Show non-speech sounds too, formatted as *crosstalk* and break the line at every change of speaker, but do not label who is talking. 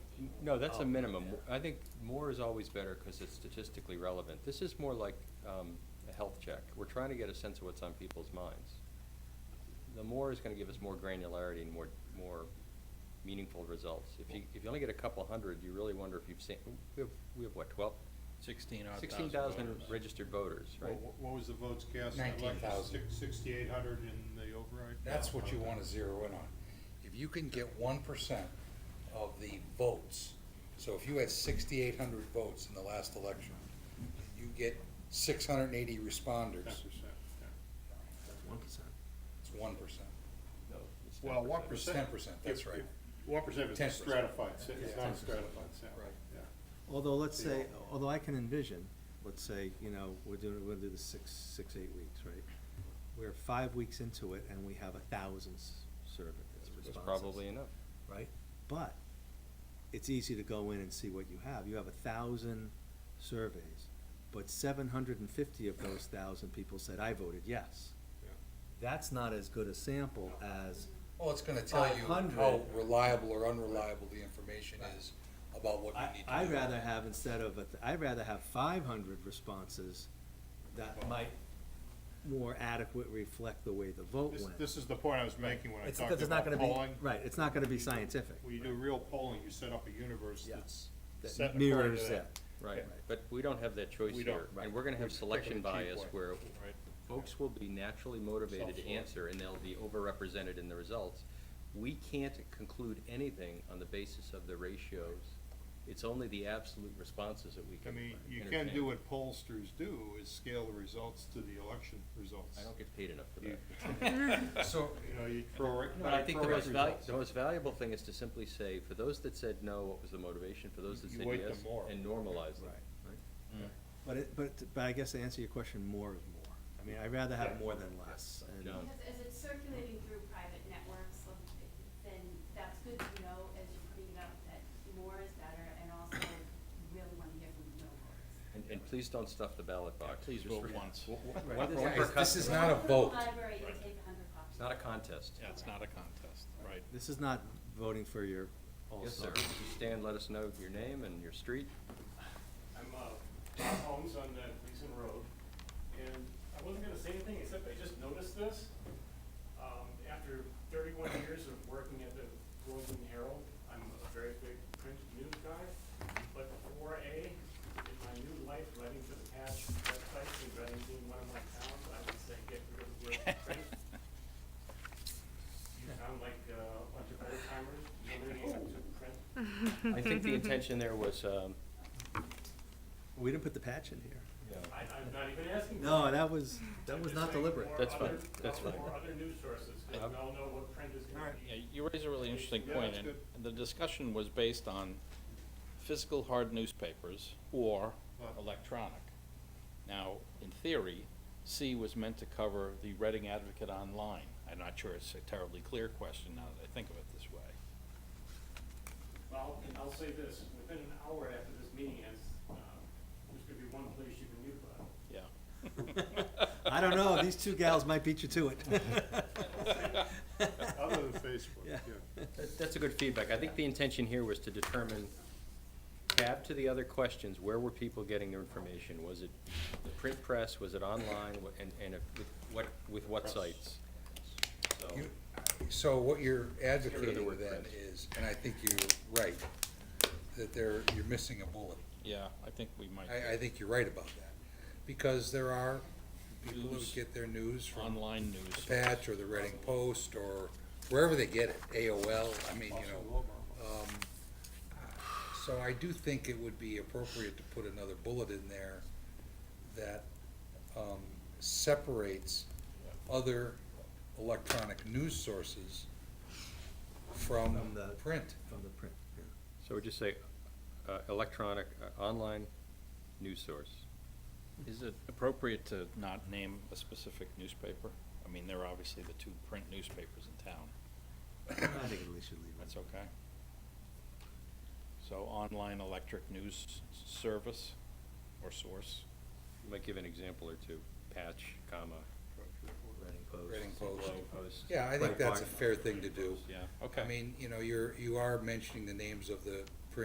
No, that's a
Oh.
Um,
minimum. I think more is always better because it's statistically relevant. This is more like um, a health check. We're trying to get a sense of what's on people's minds. The more is going to give us more granularity and more, more meaningful results. If you, if you only get a couple hundred, you really wonder if you've seen, we have, we have what, 12?
Sixteen odd thousand.
16,000
voters.
registered voters, right?
What what was the votes cast?
19,000.
Sixty-eight hundred in the override?
That's what you wanna zero in on. If you can get one percent of the votes, so if you had sixty-eight hundred votes in the last election, you get six hundred and eighty
Ten
responders,
percent, yeah.
One percent.
it's one percent.
No, it's
Well,
10%.
one
It's
percent.
ten percent, that's right.
One percent is
10%.
stratified, sa- it's
Yeah.
not stratified sample,
Right.
yeah.
Although, let's
They
say, although I can envision, let's say, you know, we're doing, we're gonna do the six, six, eight weeks, right? We're five weeks into it and we have a thousand s- survey
It's- It's
responses.
probably enough.
Right? But it's easy to go in and see what you have. You have a thousand surveys, but seven hundred and fifty of those thousand people said, I voted yes. That's not as good a sample as
Well, it's gonna tell you
500.
how reliable or unreliable the information is about what
I,
you need to do.
I'd rather have, instead of, a th- I'd rather have five hundred responses that might more adequately reflect the way the vote
This,
went.
this is the point I was making when I
It's
talked
because it's not
about
gonna be,
polling.
right, it's not gonna be scientific.
When you do real polling, you set up a universe
Yeah.
that's
That
set according to
Mirrors
that.
that.
Right,
Yeah.
but we don't have that choice
We don't.
here.
Right.
And we're going to have
We're
selection
picking a cheap
bias
one.
where
Right.
folks will be naturally motivated to
Self-sort.
answer, and they'll be overrepresented in the results. We can't conclude anything on the basis of the ratios. It's only the absolute responses that we
I
can
mean,
entertain.
you can do what pollsters do, is scale the results to the election results.
I don't get paid enough for that.
You- *laughs* So, you know, you throw.
But I think the
throw
most valuable,
results.
the most valuable thing is to simply say, for those that said no, what was the motivation? For those that
You
said
weight
yes,
them more.
and normalize them.
Right. But it, but, but I guess to answer your question, more is more. I mean, I'd rather have more than less, and.
John.
Because as it's circulating through private networks, like, then that's good to know as you're putting it out, that more is better, and also you really want to hear from the voters.
And, and please don't stuff the ballot box.
Please
Just
vote
re-
once.
Right,
One
this-
vote per
Guys, this is
customer.
not a vote.
Library, you take a hundred copies.
It's not a contest.
Yeah, it's not a contest, right.
This is not voting for your all
Yes, sir.
stars.
If you Stand, let us know your name and your street.
I'm uh, Bob Holmes on uh, Gleason Road, and I wasn't gonna say anything, except I just noticed this. Um, After thirty-one years of working at the Groveland Herald, I'm a very big print news guy, but four A, in my new life, writing for the patch websites and writing being one of my towns, I would say get rid of the word print. You sound like uh, a bunch of old timers, nobody
*laughs*
to print.
I think the intention there was, um,
We didn't put the patch in here.
I, I'm not even asking. for it.
No, that was, that
I'm
was
just
not
saying
deliberate.
more
That's fine.
other-
That's
more
fine.
other news sources, 'cause we all know what print is gonna be.
Yeah, you raise a really interesting
Yeah,
point,
that's
and
good.
and the discussion was based on physical hard newspapers or
Right.
electronic. Now, in theory, C was meant to cover the Reading Advocate online. I'm not sure it's a terribly clear question now that I think of it this way.
Well, and I'll say this, within an hour after this meeting ends, uh, there's gonna be one place you can mute button.
Yeah.
*laughs* I don't know, these two gals might beat you to it.
Other than Facebook, yeah.
Yeah.
that- that's a good feedback. I think the intention here was to determine, tab to the other questions, where were people getting their information? Was it the print press, was it online, Wha- and, and if- with what, with what sites? So,
You- So what you're advocating
word
then
print.
is, and I think you're right, that there, you're missing a bullet.
Yeah, I think we might.
I, I think you're right about that, because there are people who
News.
get their news from
Online news.
the Patch or the Reading Post or wherever they get it, AOL, I mean, you know. um, So I do think it would be appropriate to put another bullet in there that um, separates other electronic news sources from
From the-
print.
From the print, yeah.
so we just say, uh, electronic, uh, online news source.
Is it appropriate to not name a specific newspaper? I mean, there are obviously the two print newspapers in town.
I think we should leave
That's
it.
okay. So online electric news s- service or source?
You Might give an example or two, patch, comma,
Reading Post.
Reading Post.
post.
Yeah, I think that's a
Breitbart.
fair thing to do.
Yeah, okay.
I mean, you know, you're, you are mentioning the names of the